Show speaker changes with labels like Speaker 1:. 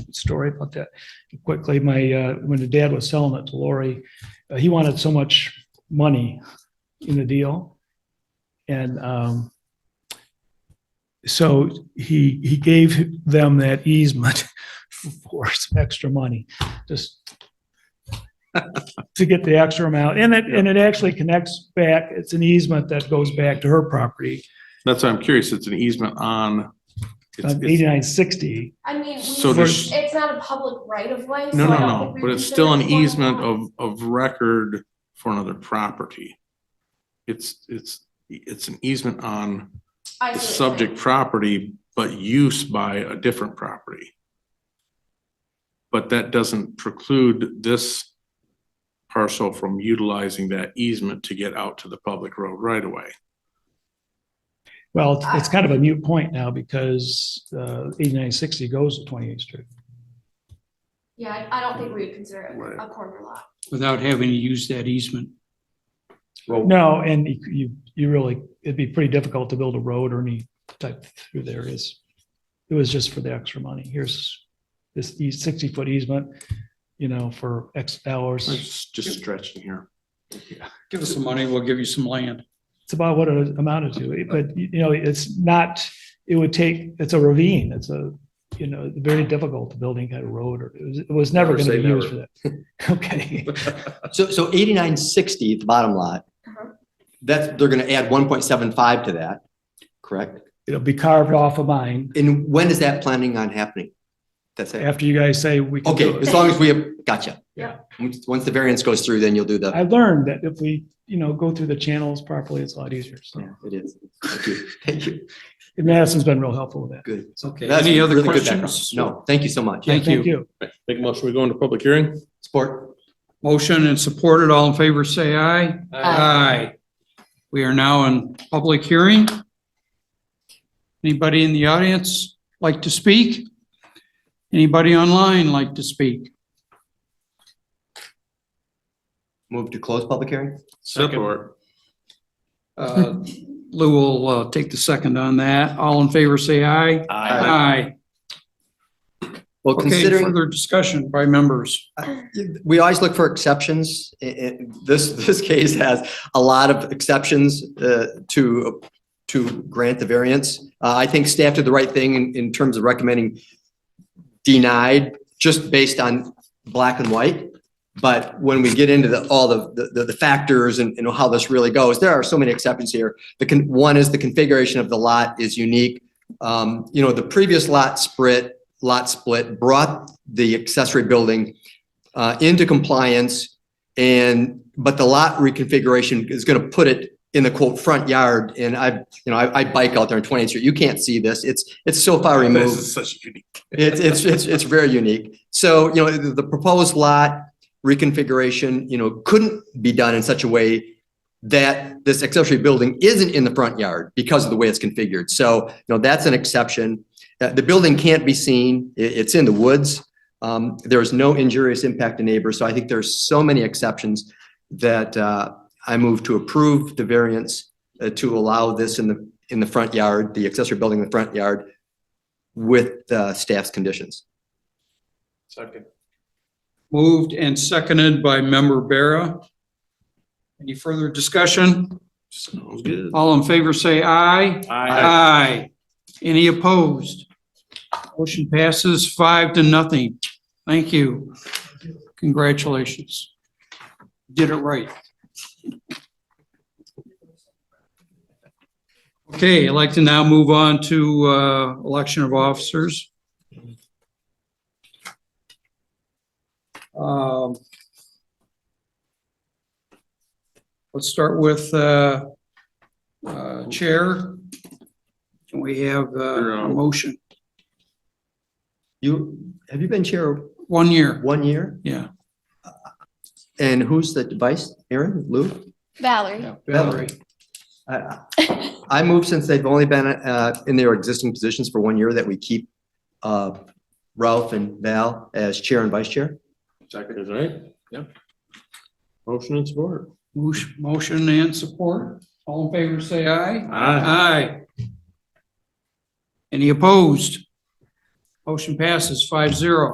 Speaker 1: story about that. Quickly, my, uh, when the dad was selling it to Lori, uh, he wanted so much money in the deal. And, um, so he, he gave them that easement for some extra money, just to get the extra amount. And it, and it actually connects back, it's an easement that goes back to her property,
Speaker 2: That's why I'm curious. It's an easement on. it's- it's-
Speaker 1: eighty-nine sixty.
Speaker 3: I mean, we,
Speaker 2: So
Speaker 1: there's-
Speaker 3: it's not a public right of way.
Speaker 2: No,
Speaker 3: so
Speaker 2: no,
Speaker 3: I don't
Speaker 2: no,
Speaker 3: think we
Speaker 2: but it's
Speaker 3: consider
Speaker 2: still an
Speaker 3: it formal
Speaker 2: easement
Speaker 3: law.
Speaker 2: of, of record for another property. It's, it's, it's an easement on
Speaker 3: I
Speaker 2: the
Speaker 3: see what you're
Speaker 2: subject
Speaker 3: saying.
Speaker 2: property, but use by a different property. But that doesn't preclude this parcel from utilizing that easement to get out to the public road right away.
Speaker 1: Well, it's- it's
Speaker 4: Ah.
Speaker 1: kind of a mute point now because, uh, eighty-nine sixty goes to twenty-eighth street.
Speaker 3: Yeah, I, I don't think we would consider
Speaker 2: Right.
Speaker 3: it a corner lot.
Speaker 5: without having to use that easement.
Speaker 1: No, and you- you, you really, it'd be pretty difficult to build a road or any type through there is. It was just for the extra money. Here's this E, sixty-foot easement, you know, for X hours.
Speaker 2: It's just stretching here.
Speaker 5: Give us some money, we'll give you some land.
Speaker 1: It's about what it amounted to, but you know, it's not, it would take, it's a ravine. It's a, you know, very difficult to building kind of road or it was, it was never
Speaker 4: Never
Speaker 1: going to
Speaker 4: say
Speaker 1: be used for that. Okay.
Speaker 4: So, so eighty-nine sixty, the bottom lot,
Speaker 3: Uh-huh.
Speaker 4: that's, they're gonna add one point seven five to that, correct?
Speaker 1: It'll be carved off of mine
Speaker 4: And when is that planning on happening? That's it?
Speaker 1: after you guys say we can do
Speaker 4: Okay,
Speaker 1: it.
Speaker 4: as long as we have, gotcha.
Speaker 3: Yeah.
Speaker 4: Once once the variance goes through, then you'll do the,
Speaker 1: I learned that if we, you know, go through the channels properly, it's a lot easier. So
Speaker 4: yeah, it is. Thank you. Thank you.
Speaker 1: And Madison's been real helpful with that.
Speaker 4: Good.
Speaker 5: Okay,
Speaker 4: That's
Speaker 5: any other
Speaker 4: really good background.
Speaker 5: questions?
Speaker 4: No, thank you so much.
Speaker 5: Thank you.
Speaker 2: Make a motion, we go into public hearing?
Speaker 4: Support.
Speaker 5: Motion and supported, all in favor, say aye. Aye. We are now in public hearing. Anybody in the audience like to speak? Anybody online like to speak?
Speaker 4: Move to close public hearing?
Speaker 2: Support.
Speaker 5: Uh, Lou will uh, take the second on that. All in favor, say aye. Aye.
Speaker 4: Well,
Speaker 5: Okay,
Speaker 4: considering,
Speaker 5: further discussion by members.
Speaker 4: we always look for exceptions. I- I- This, this case has a lot of exceptions uh, to, to grant the variance. Uh, I think staff did the right thing in, in terms of recommending denied, just based on black and white. But when we get into the, all the, the, the factors and, and how this really goes, there are so many exceptions here. The, con- one is the configuration of the lot is unique. Um, You know, the previous lot split, lot split brought the accessory building uh, into compliance. And, but the lot reconfiguration is going to put it in the quote front yard. And I, you know, I, I bike out there on 20th Street. You can't see this. It's, it's so far removed.
Speaker 2: This is such unique.
Speaker 4: It's, it's, it's, it's very unique. So, you know, the, the proposed lot reconfiguration, you know, couldn't be done in such a way that this accessory building isn't in the front yard because of the way it's configured. So, you know, that's an exception. Uh, the building can't be seen. I- it's in the woods. Um, there is no injurious impact to neighbors. So I think there's so many exceptions that, uh, I move to approve the variance uh, to allow this in the, in the front yard, the accessory building in the front yard with the staff's conditions.
Speaker 2: Second.
Speaker 5: Moved and seconded by member Barra. Any further discussion?
Speaker 2: Sounds good.
Speaker 5: All in favor, say aye. Aye. Any opposed? Motion passes five to nothing. Thank you. Congratulations. Did it right. Okay, I'd like to now move on to uh, election of officers. Um, Let's start with uh, uh, Chair. Can we have
Speaker 2: Sure,
Speaker 5: uh, a
Speaker 2: um,
Speaker 5: motion?
Speaker 4: You, have you been chair
Speaker 5: One year,
Speaker 4: one year?
Speaker 5: yeah.
Speaker 4: And who's the vice? Aaron, Lou?
Speaker 6: Valerie.
Speaker 5: Valerie,
Speaker 4: I- I I moved since they've only been uh, in their existing positions for one year that we keep uh, Ralph and Val as chair and vice chair.
Speaker 2: Second is right. Yep. Motion and support.
Speaker 5: motion- motion and support. All in favor, say aye.
Speaker 2: Aye.
Speaker 5: Aye. Any opposed? Motion passes five zero.